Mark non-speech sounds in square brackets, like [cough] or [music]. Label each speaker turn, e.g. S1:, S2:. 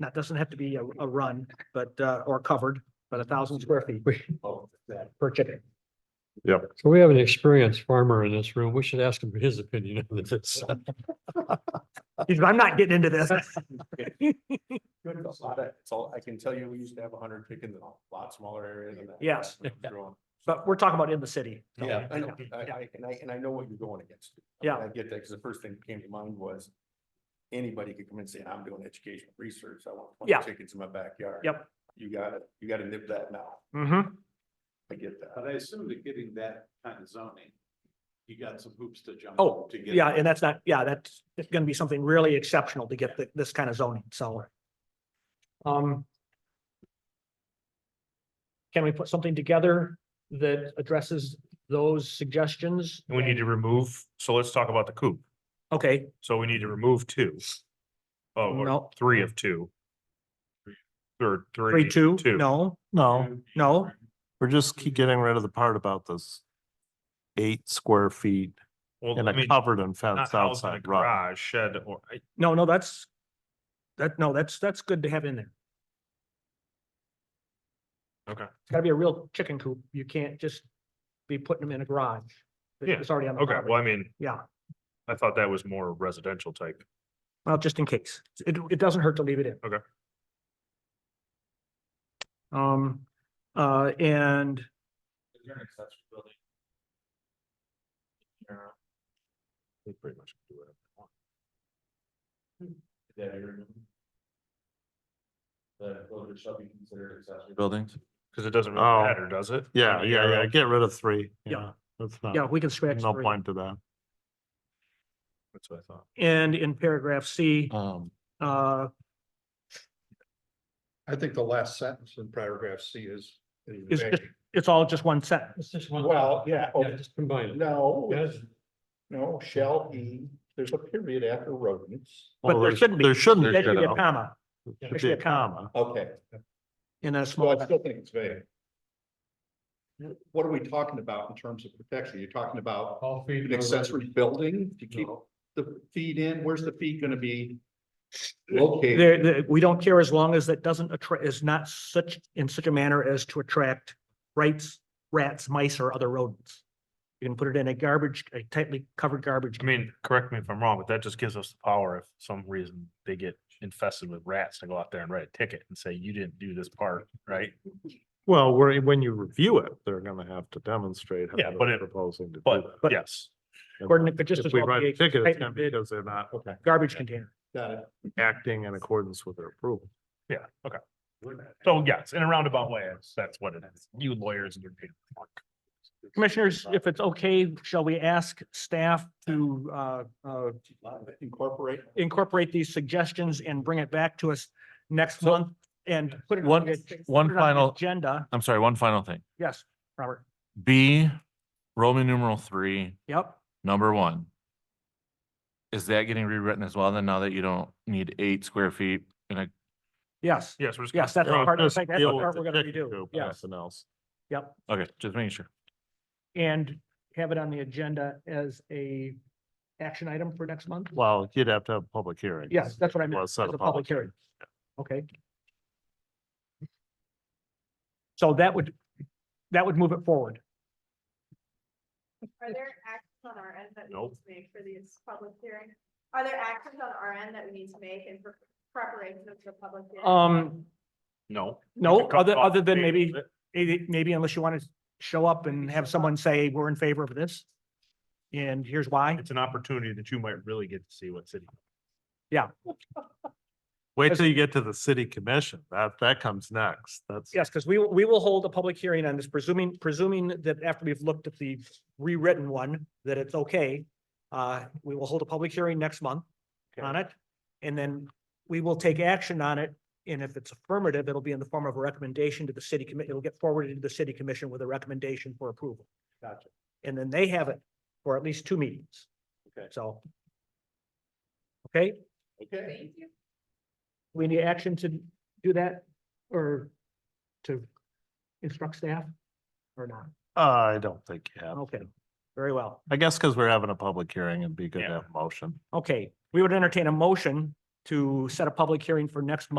S1: That doesn't have to be a, a run, but, uh, or covered, but a thousand square feet
S2: Oh,
S1: per chicken.
S3: So we have an experienced farmer in this room. We should ask him his opinion on this.
S1: He's- I'm not getting into this. [laughs]
S2: It's a lot of- it's all- I can tell you, we used to have hundred chickens in a lot smaller area than that.
S1: Yes. [laughs]
S2: Growing.
S1: But we're talking about in the city. so-
S2: Yeah, I know. I- I- and I, and I know what you're going against. I mean,
S1: Yeah.
S2: I get that, because the first thing that came to mind was anybody could come and say, I'm doing educational research, I want
S1: Yeah.
S2: twenty chickens in my backyard.
S1: Yep.
S2: You gotta, you gotta nip that now.
S1: Mhm.
S2: I get that.
S4: But I assume that getting that kind of zoning, you got some hoops to jump.
S1: Oh,
S4: to get
S1: yeah,
S4: it.
S1: and that's not, yeah, that's, it's gonna be something really exceptional to get thi- this kind of zoning, so. Um. Can we put something together that addresses those suggestions?
S5: We need to remove, so let's talk about the coop.
S1: Okay,
S5: So we need to remove two. Oh, or
S1: no,
S5: three of two. Or three.
S1: three, two, no,
S4: Oh,
S1: no.
S6: We're just keep getting rid of the part about this eight square feet
S5: Well,
S6: and
S5: I
S6: a
S5: mean,
S6: covered and
S5: not
S6: fenced
S5: house in a
S6: outside run.
S5: garage, shed, or, I-
S1: no, no, that's. That, no, that's, that's good to have in there.
S5: Okay.
S1: It's gotta be a real chicken coop. You can't just be putting them in a garage. that-
S5: Yeah,
S1: It's already on the
S5: okay,
S1: property.
S5: well, I mean,
S1: Yeah,
S5: I thought that was more residential type.
S1: well, just in case. It, it doesn't hurt to leave it in.
S5: Okay.
S1: Um, uh, and
S4: Is there an accessory building?
S5: They pretty much do whatever they want.
S4: that you're removing? The, those shall be considered accessory buildings.
S5: Cause it doesn't really
S6: Oh.
S5: matter, does it?
S6: Yeah,
S5: I mean,
S6: yeah,
S5: you're
S6: yeah,
S5: out.
S6: get rid of three.
S1: Yeah.
S6: That's not,
S1: yeah, we can scratch
S6: no
S1: three.
S6: point to that.
S5: That's what I thought.
S1: And in paragraph C,
S6: Um,
S1: uh,
S7: I think the last sentence in paragraph C is.
S1: Is just- it's all just one sentence.
S3: It's just one.
S7: Well, yeah, oh,
S3: Yeah, just combine it.
S7: no,
S3: Yes.
S7: no, shall be, there's a period after rodents.
S1: But
S6: well,
S1: there
S6: there's-
S1: shouldn't be.
S6: There shouldn't.
S1: There should be a
S6: be.
S1: comma
S6: Should be a comma.
S7: Okay,
S1: in a
S7: so
S1: small.
S7: I still think it's vague. What are we talking about in terms of protection? You're talking about
S3: All feet
S7: an
S3: no
S7: accessory building to keep
S3: No.
S7: the feed in? Where's the feed gonna be? Located.
S1: There, there- we don't care as long as that doesn't attract, is not such, in such a manner as to attract rats, rats, mice, or other rodents. You can put it in a garbage, a tightly covered garbage.
S5: I mean, correct me if I'm wrong, but that just gives us the power if some reason they get infested with rats to go out there and write a ticket and say, you didn't do this part, right?
S6: Well, where, when you review it, they're gonna have to demonstrate. how
S5: Yeah,
S6: they're
S5: but it-
S6: Proposing to do
S5: But
S6: that.
S5: yes,
S6: And
S1: Gordon, it could just
S6: If
S1: as
S6: we
S1: well
S6: write
S1: be
S6: a ticket,
S1: a
S6: it's gonna be
S1: tightly
S6: because they're not
S1: garbage container.
S7: Got it.
S6: acting in accordance with their approval.
S5: yeah, okay. So yes, in a roundabout way, that's- that's what it is. You lawyers and your paper.
S1: Commissioners, if it's okay, shall we ask staff to, uh, uh,
S7: Incorporate.
S1: incorporate these suggestions and bring it back to us next month and put it. on
S8: One-
S1: the ag-
S8: one
S1: put it on the
S8: final-
S1: Agenda,
S8: I'm sorry, one final thing.
S1: yes, Robert,
S8: B, Roman numeral three,
S1: yep,
S8: number one. Is that getting rewritten as well then now that you don't need eight square feet in a,
S1: yes,
S5: Yes, we're just. gonna
S1: yes, that's the
S6: Well,
S1: part, I
S6: just
S1: think that's the
S6: deal with
S1: part
S6: the
S1: we're gonna
S6: chicken
S1: redo,
S6: coop,
S1: yes,
S6: Nothing else.
S1: yep.
S8: okay, just making sure.
S1: And have it on the agenda as a action item for next month?
S6: Well, you'd have to have a public hearing.
S1: Yes, that's what I
S6: Well,
S1: meant, as
S6: set
S1: a public hearing. Okay. So that would, that would move it forward.
S9: Are there actions on our end that we
S6: Nope.
S9: need to make for these public hearings? Are there actions on our end that we need to make in pre- preparation of the public? hearing?
S1: Um,
S5: No.
S1: No,
S5: You can cut
S1: other-
S5: off
S1: other
S5: the
S1: than
S5: date
S1: maybe-
S5: of it.
S1: eh, maybe unless you want to show up and have someone say, we're in favor of this. And here's why.
S5: It's an opportunity that you might really get to see what city.
S6: [laughs] Wait
S1: As-
S6: till you get to the city commission. That, that comes next. That's.
S1: Yes, because we, will- we will hold a public hearing on this, presuming, presuming that after we've looked at the rewritten one, that it's okay. Uh, we will hold a public hearing next month on it. And then we will take action on it. And if it's affirmative, it'll be in the form of a recommendation to the city committee. It'll get forwarded to the city commission with a recommendation for approval.
S7: Gotcha.
S1: And then they have it for at least two meetings.
S7: Okay.
S1: So. Okay,
S7: Okay.
S9: Thank you.
S1: we need action to do that or to instruct staff or not?
S6: I don't think you have.
S1: Okay, very well.
S6: I guess because we're having a public hearing, it'd be good to
S5: Yeah.
S6: have a motion.
S1: Okay, we would entertain a motion to set a public hearing for next month.